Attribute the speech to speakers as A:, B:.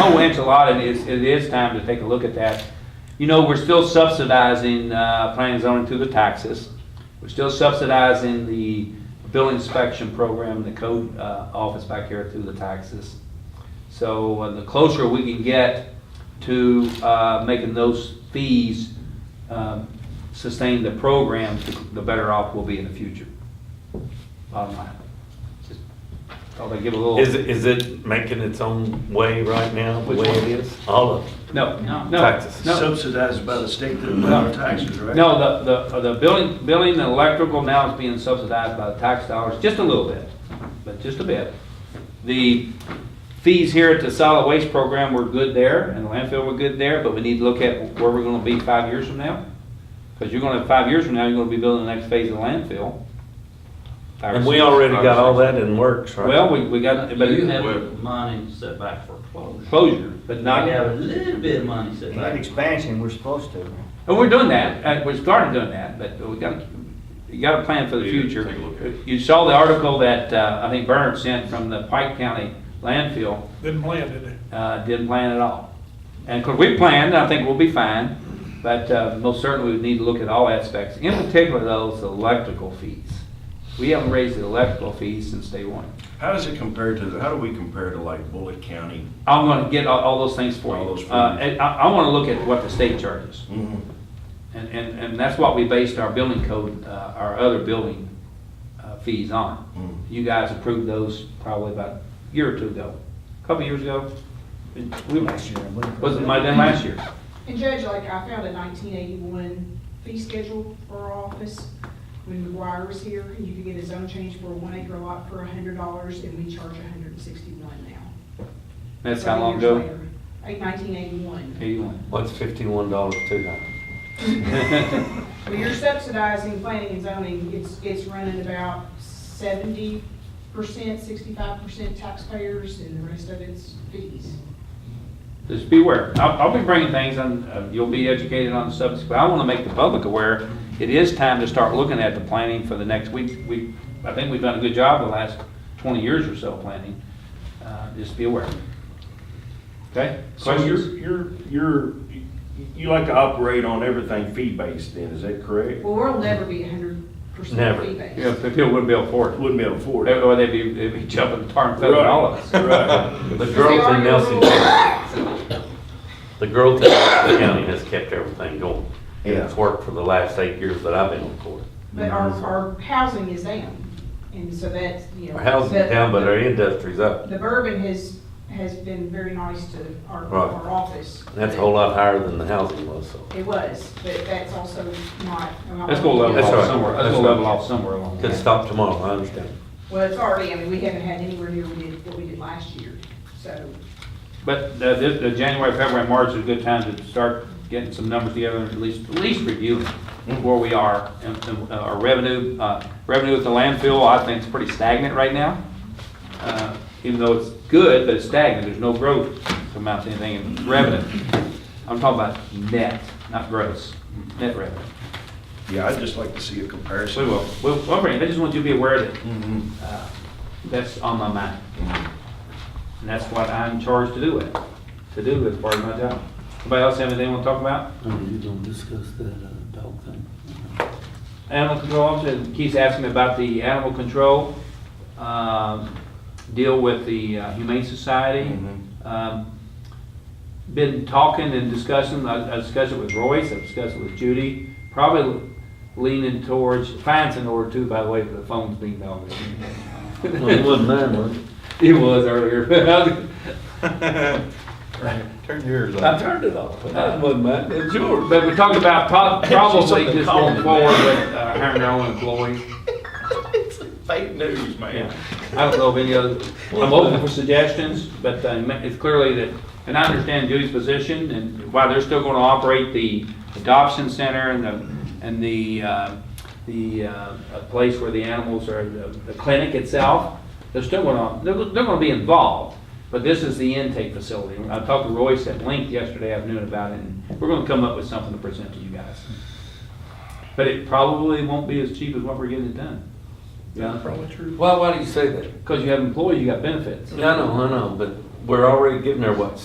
A: a lot, and it's, it is time to take a look at that. You know, we're still subsidizing, uh, planning and zoning through the taxes. We're still subsidizing the building inspection program, the code, uh, office back here through the taxes. So uh, the closer we can get to, uh, making those fees, um, sustain the program, the better off we'll be in the future. Bottom line. Just Thought I'd give a little.
B: Is, it- is it making its own way right now? the
A: Which
B: way
A: one?
B: it is? All of it.
A: No, no, no.
B: Taxes.
C: Subsidized by the state through our taxes, right?
A: No, the, the, the building, building and electrical now is being subsidized by the tax dollars, just a little bit, but just a bit. The fees here at the solid waste program were good there, and the landfill were good there, but we need to look at where we're gonna be five years from now. Cause you're gonna, five years from now, you're gonna be building the next phase of the landfill. Five or
B: And we
A: six-
B: already
A: five or
B: got all
A: six.
B: that in works, right?
A: Well, we, we got, but
D: You have money set back for closure.
A: closure, but not.
D: You have a little bit of money set
E: That
D: back.
E: expansion, we're supposed to, right?
A: And we're doing that, uh, we're starting doing that, but we gotta, you gotta plan for the
F: Yeah,
A: future.
F: take a look at it.
A: You saw the article that, uh, I think Bernard sent from the Pike County landfill,
G: Didn't plan, did they?
A: uh, didn't plan at all. And, cause we planned, and I think we'll be fine, but, uh, most certainly we need to look at all aspects, in particular those electrical fees. We haven't raised the electrical fees since day one.
C: How does it compare to, how do we compare to like Bullitt County?
A: I'm gonna get all, all those things for you.
C: All those for
A: Uh,
C: you.
A: and I, I wanna look at what the state charges. And, and, and that's what we based our building code, uh, our other building, uh, fees on.
C: Mm.
A: You guys approved those probably about a year or two ago, a couple years ago. And we-
E: Last year, I believe.
A: Was it my, then last year?
H: And Judge, like, I found a nineteen eighty-one fee schedule for our office. When McGuire was here, you could get a zone change for a one acre lot for hundred dollars, and we charge hundred and sixty-one now.
A: That's how
H: Seven
A: long
H: years
A: ago?
H: later. Like nineteen eighty-one.
A: Eighty-one.
B: What's fifty-one dollars to that?
H: When you're subsidizing planning and zoning, it's, it's running about seventy percent, sixty-five percent taxpayers, and the rest of it's fees.
A: Just beware. I'll, I'll be bringing things on, uh, you'll be educated on the subject, but I want to make the public aware. It is time to start looking at the planning for the next week. We, I think we've done a good job the last twenty years or so planning. Uh, Just be aware. Okay?
C: So
A: Questions?
C: you're, you're, you're, you like to operate on everything fee-based then, is that correct?
H: Well, we'll never be hundred percent
B: Never.
H: fee-based.
A: Yeah, if people wouldn't be able to afford it.
C: Wouldn't be able to afford it.
A: Or they'd be, they'd be jumping the tar and feathering all of us.
C: Right.
B: The growth in Nelson, the growth in Nelson County has kept everything going. And it's
C: Yeah.
B: worked for the last eight years that I've been on court.
H: But our, our housing is down, and so that's, you know.
B: Our housing's
H: the-
B: down, but our industry's up.
H: The Bourbon has, has been very nice to our,
B: Right.
H: our office.
B: That's a whole lot higher than the housing was, so.
H: It was, but that's also not. not-
A: Let's go level
B: That's all
A: off
B: right.
A: somewhere, let's
B: That's
A: go
B: all right.
A: level off somewhere along the
B: Could
A: way.
B: stop tomorrow, I understand.
H: Well, it's already, I mean, we haven't had anywhere near we did, what we did last year, so.
A: But the, the- the January, February, March is a good time to start getting some numbers together and at least, at least reviewing where we are. And, and, uh, our revenue, uh, revenue at the landfill, I think is pretty stagnant right now. Uh, Even though it's good, but it's stagnant, there's no growth from out to anything in revenue. I'm talking about net, not gross, net revenue.
C: Yeah, I'd just like to see a
A: We
C: comparison.
A: will, we'll, we'll bring it. I just want you to be aware that
C: Mhm.
A: uh, that's on my mind.
C: Mm-hmm.
A: And that's what I'm charged to do with, to do as part of my job. Anybody else have anything they want to talk about?
I: You don't discuss that uh, dog thing.
A: Animal control officer, Keith's asking me about the animal control, um, deal with the uh, Humane Society. Um, Been talking and discussing, I I discussed it with Royce, I discussed it with Judy, probably leaning towards, fines in order too, by the way, for the phones being dogged.
B: Well, it wasn't mine, was it?
A: It was earlier.
F: Turn yours
B: I turned it off. That wasn't mine, it's yours.
A: But we're talking about prob- probably just
F: calm.
A: going forward with uh, hiring our own employees.
F: Fake news,
A: Yeah.
F: man.
A: I don't know of any other, I'm open for suggestions, but uh, it's clearly that, and I understand Judy's position and why they're still going to operate the adoption center and the, and the, uh, the uh, uh, place where the animals are, the the clinic itself. They're still going to, they're, they're going to be involved, but this is the intake facility. I talked to Royce at length yesterday afternoon about it and we're going to come up with something to present to you guys. But it probably won't be as cheap as what we're getting it done. Yeah.
G: Probably true.
B: Why, why do you say that?
A: Because you have employee, you got benefits.
B: I know, I know, but we're already giving her what,